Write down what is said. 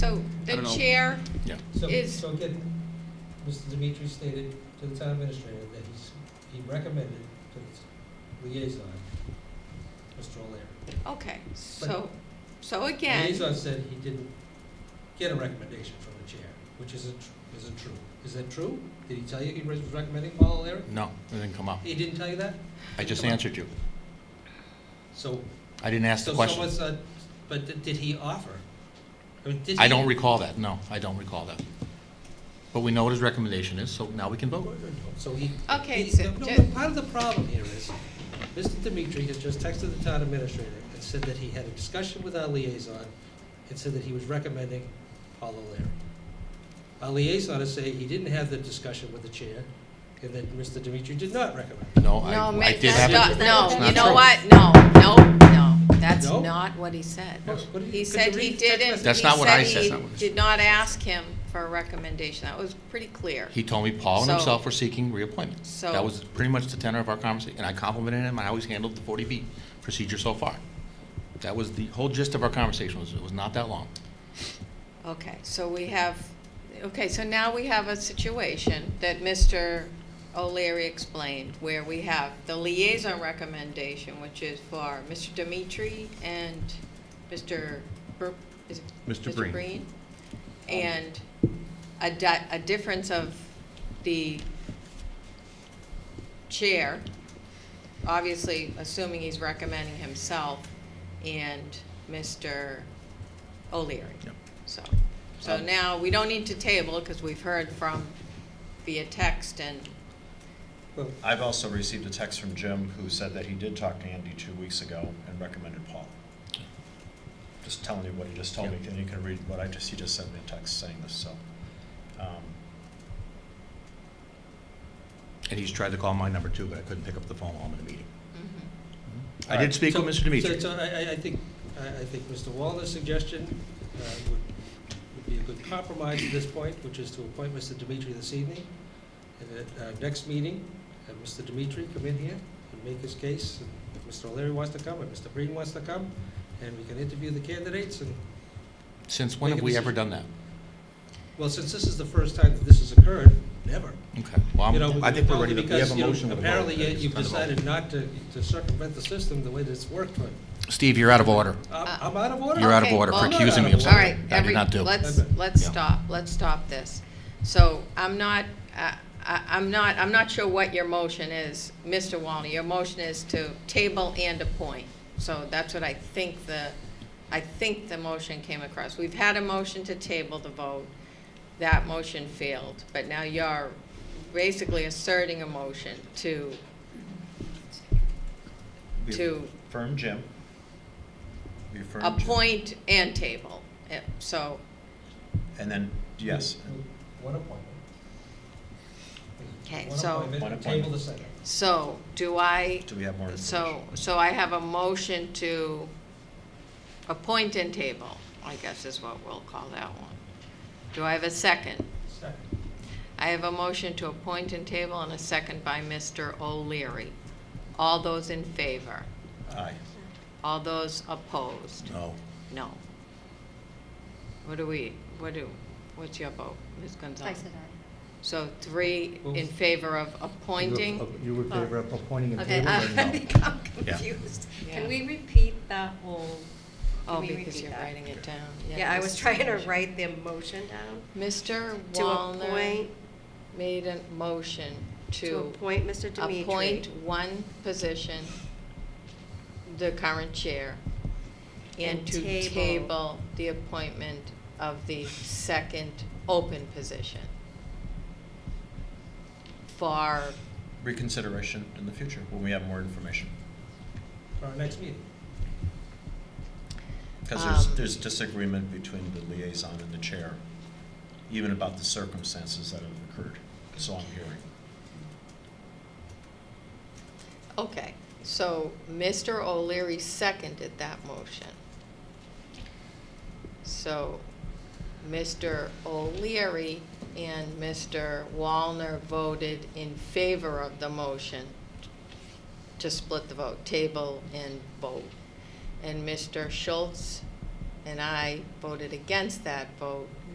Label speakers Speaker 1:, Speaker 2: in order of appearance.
Speaker 1: I
Speaker 2: the
Speaker 1: don't know.
Speaker 2: chair
Speaker 1: Yeah.
Speaker 3: So,
Speaker 2: is-
Speaker 3: so again, Mr. Dimitri stated to the town administrator that he's, he recommended to the liaison, Mr. O'Leary.
Speaker 2: Okay, so, so again.
Speaker 3: Liaison said he didn't get a recommendation from the chair, which isn't, tr- isn't true. Is that true? Did he tell you he was recommending Paul O'Leary?
Speaker 1: No, it didn't come up.
Speaker 3: He didn't tell you that?
Speaker 1: I just answered you.
Speaker 3: So,
Speaker 1: I didn't ask the
Speaker 3: so
Speaker 1: question.
Speaker 3: someone said, but did- did he offer? I mean, did
Speaker 1: I
Speaker 3: he-
Speaker 1: don't recall that, no, I don't recall that. But we know what his recommendation is, so now we can vote.
Speaker 3: So he.
Speaker 2: Okay,
Speaker 3: he-
Speaker 2: so
Speaker 3: no,
Speaker 2: ju-
Speaker 3: no, Part of the problem here is, Mr. Dimitri has just texted the town administrator and said that he had a discussion with our liaison and said that he was recommending Paul O'Leary. Our liaison is saying he didn't have the discussion with the chair and that Mr. Dimitri did not recommend.
Speaker 4: No,
Speaker 1: No, Oh, I, I
Speaker 4: Mick,
Speaker 1: did
Speaker 4: that's
Speaker 1: have.
Speaker 4: not,
Speaker 1: it.
Speaker 4: no,
Speaker 1: It's
Speaker 4: you
Speaker 1: not
Speaker 4: know
Speaker 1: true.
Speaker 4: what? No, no, no, that's
Speaker 3: No?
Speaker 4: not what he said.
Speaker 3: Yes. What did he-
Speaker 4: He
Speaker 3: could
Speaker 4: said
Speaker 3: you
Speaker 4: he
Speaker 3: read the text
Speaker 4: didn't,
Speaker 3: message?
Speaker 1: That's
Speaker 4: he
Speaker 1: not what I
Speaker 4: said
Speaker 1: said, that's
Speaker 4: he
Speaker 1: not what I
Speaker 4: did not ask him for a recommendation. That was pretty clear.
Speaker 1: He told me Paul and
Speaker 4: So-
Speaker 1: himself were seeking reappointment.
Speaker 4: So-
Speaker 1: That was pretty much the tenor of our conversation, and I complimented him on how he's handled the 40B procedure so far. That was the whole gist of our conversation, was it was not that long.
Speaker 4: Okay, so we have, okay, so now we have a situation that Mr. O'Leary explained, where we have the liaison recommendation, which is for Mr. Dimitri and Mr. Br- is it
Speaker 5: Mr. Breen.
Speaker 4: And a di- a difference of the chair, obviously assuming he's recommending himself, and Mr. O'Leary.
Speaker 1: Yep.
Speaker 4: So, so now, we don't need to table, because we've heard from via text and,
Speaker 3: Well,
Speaker 5: I've also received a text from Jim who said that he did talk to Andy two weeks ago and recommended Paul. Just telling you what he just told me, and you can read what I just, he just sent me a text saying this, so. um,
Speaker 1: And he's tried to call my number too, but I couldn't pick up the phone while I'm in a meeting. I
Speaker 5: All
Speaker 1: did
Speaker 5: right.
Speaker 1: speak with
Speaker 3: So-
Speaker 1: Mr. Dimitri.
Speaker 3: So, so I, I- I think, I, I think Mr. Walner's suggestion uh, would, would be a good compromise at this point, which is to appoint Mr. Dimitri this evening. And at our next meeting, have Mr. Dimitri come in here and make his case. And If Mr. O'Leary wants to come, and Mr. Breen wants to come, and we can interview the candidates. And,
Speaker 1: Since when
Speaker 3: Make
Speaker 1: have
Speaker 3: a
Speaker 1: we ever done
Speaker 3: decision.
Speaker 1: that?
Speaker 3: well, since this is the first time that this has occurred, never.
Speaker 1: Okay, well,
Speaker 3: You
Speaker 1: I'm-
Speaker 3: know,
Speaker 5: Um, I think we're ready to- we
Speaker 3: because,
Speaker 5: have a
Speaker 3: you know,
Speaker 5: motion with a vote.
Speaker 3: Apparently,
Speaker 5: I think
Speaker 3: you-
Speaker 5: it's
Speaker 3: you've
Speaker 5: time to vote.
Speaker 3: decided not to to circumvent the system the way that it's worked. but
Speaker 1: Steve, you're out of order.
Speaker 4: Uh,
Speaker 3: I'm I'm out of order.
Speaker 1: You're out of
Speaker 4: Okay,
Speaker 1: order for
Speaker 4: well-
Speaker 1: accusing me of
Speaker 3: All
Speaker 4: all
Speaker 1: something
Speaker 4: right,
Speaker 1: I did
Speaker 4: every,
Speaker 1: not do.
Speaker 4: let's, let's
Speaker 1: Yeah.
Speaker 4: stop, let's stop this. So I'm not, I, I- I'm not, I'm not sure what your motion is, Mr. Walner. Your motion is to table and appoint. So that's what I think the, I think the motion came across. We've had a motion to table the vote. That motion failed, but now you're basically asserting a motion to,
Speaker 5: we
Speaker 4: to
Speaker 5: Affirm Jim. We affirm Jim.
Speaker 4: appoint and table. Eh, So
Speaker 5: And then, yes,
Speaker 3: One appointment.
Speaker 4: Okay,
Speaker 3: One
Speaker 4: so-
Speaker 3: appointment,
Speaker 5: One
Speaker 3: Table
Speaker 5: appointment.
Speaker 3: the second.
Speaker 4: So, do I,
Speaker 5: do we have more information?
Speaker 4: so, so I have a motion to appoint and table, I guess is what we'll call that one. Do I have a second?
Speaker 3: Second.
Speaker 4: I have a motion to appoint and table and a second by Mr. O'Leary. All those in favor?
Speaker 5: Aye.
Speaker 4: All those opposed?
Speaker 1: No.
Speaker 4: No. What do we, what do, what's your vote, Ms.
Speaker 6: I
Speaker 4: Gonzalez?
Speaker 6: said aye.
Speaker 4: So three in favor of appointing?
Speaker 7: You were in favor of appointing a
Speaker 6: Okay, uh,
Speaker 7: table or
Speaker 6: I- I
Speaker 7: no?
Speaker 6: become
Speaker 1: Yeah.
Speaker 6: confused.
Speaker 4: Yeah.
Speaker 6: Can we repeat that whole? can
Speaker 4: Oh,
Speaker 6: we
Speaker 4: because
Speaker 6: repeat
Speaker 4: you're
Speaker 6: that?
Speaker 4: writing it down.
Speaker 6: Yeah, I
Speaker 4: this
Speaker 6: was
Speaker 4: is
Speaker 6: trying to
Speaker 4: motion.
Speaker 6: write the motion down
Speaker 4: Mr.
Speaker 6: to
Speaker 4: Wallner
Speaker 6: appoint,
Speaker 4: made a motion
Speaker 6: to
Speaker 4: to
Speaker 6: appoint Mr. Dimitri.
Speaker 4: appoint one position, the current chair, and
Speaker 6: And
Speaker 4: to
Speaker 6: table.
Speaker 4: table the appointment of the second open position for,
Speaker 5: Reconsideration in the future when we have more information.
Speaker 3: For our next meeting.
Speaker 5: Because there's,
Speaker 4: Um,
Speaker 5: there's disagreement between the liaison and the chair, even about the circumstances that have occurred, so I'm hearing.
Speaker 4: okay. So Mr. O'Leary seconded that motion. So Mr. O'Leary and Mr. Wallner voted in favor of the motion to split the vote, table and vote. And Mr. Schultz and I voted against that vote,